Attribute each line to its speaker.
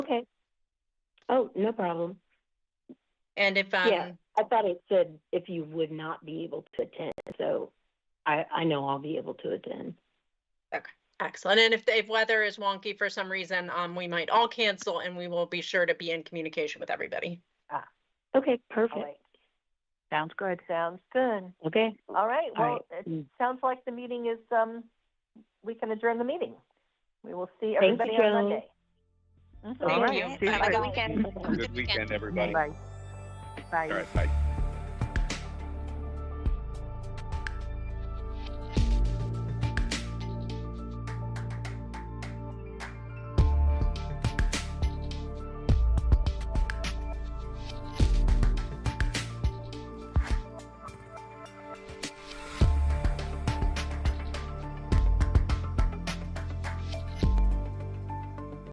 Speaker 1: Okay. Oh, no problem.
Speaker 2: And if,
Speaker 1: Yeah.
Speaker 2: um,
Speaker 1: I thought it said if you would not be able to attend, so I, I know I'll be able to attend.
Speaker 2: excellent. And if, if weather is wonky for some reason, um, we might all cancel and we will be sure to be in communication with everybody.
Speaker 1: Okay,
Speaker 3: All
Speaker 1: perfect.
Speaker 3: right. Sounds good. Sounds good.
Speaker 1: Okay.
Speaker 3: All right.
Speaker 1: All
Speaker 3: Well,
Speaker 1: right. Mm.
Speaker 3: it sounds like the meeting is, um, we can adjourn the meeting. We will see
Speaker 1: Thank you,
Speaker 3: everybody on
Speaker 1: Joan.
Speaker 3: Monday. Mhm.
Speaker 2: Thank
Speaker 3: All right.
Speaker 2: you.
Speaker 3: Have a good
Speaker 4: Have a good weekend, everybody.
Speaker 3: Bye. Bye.
Speaker 4: All right, bye.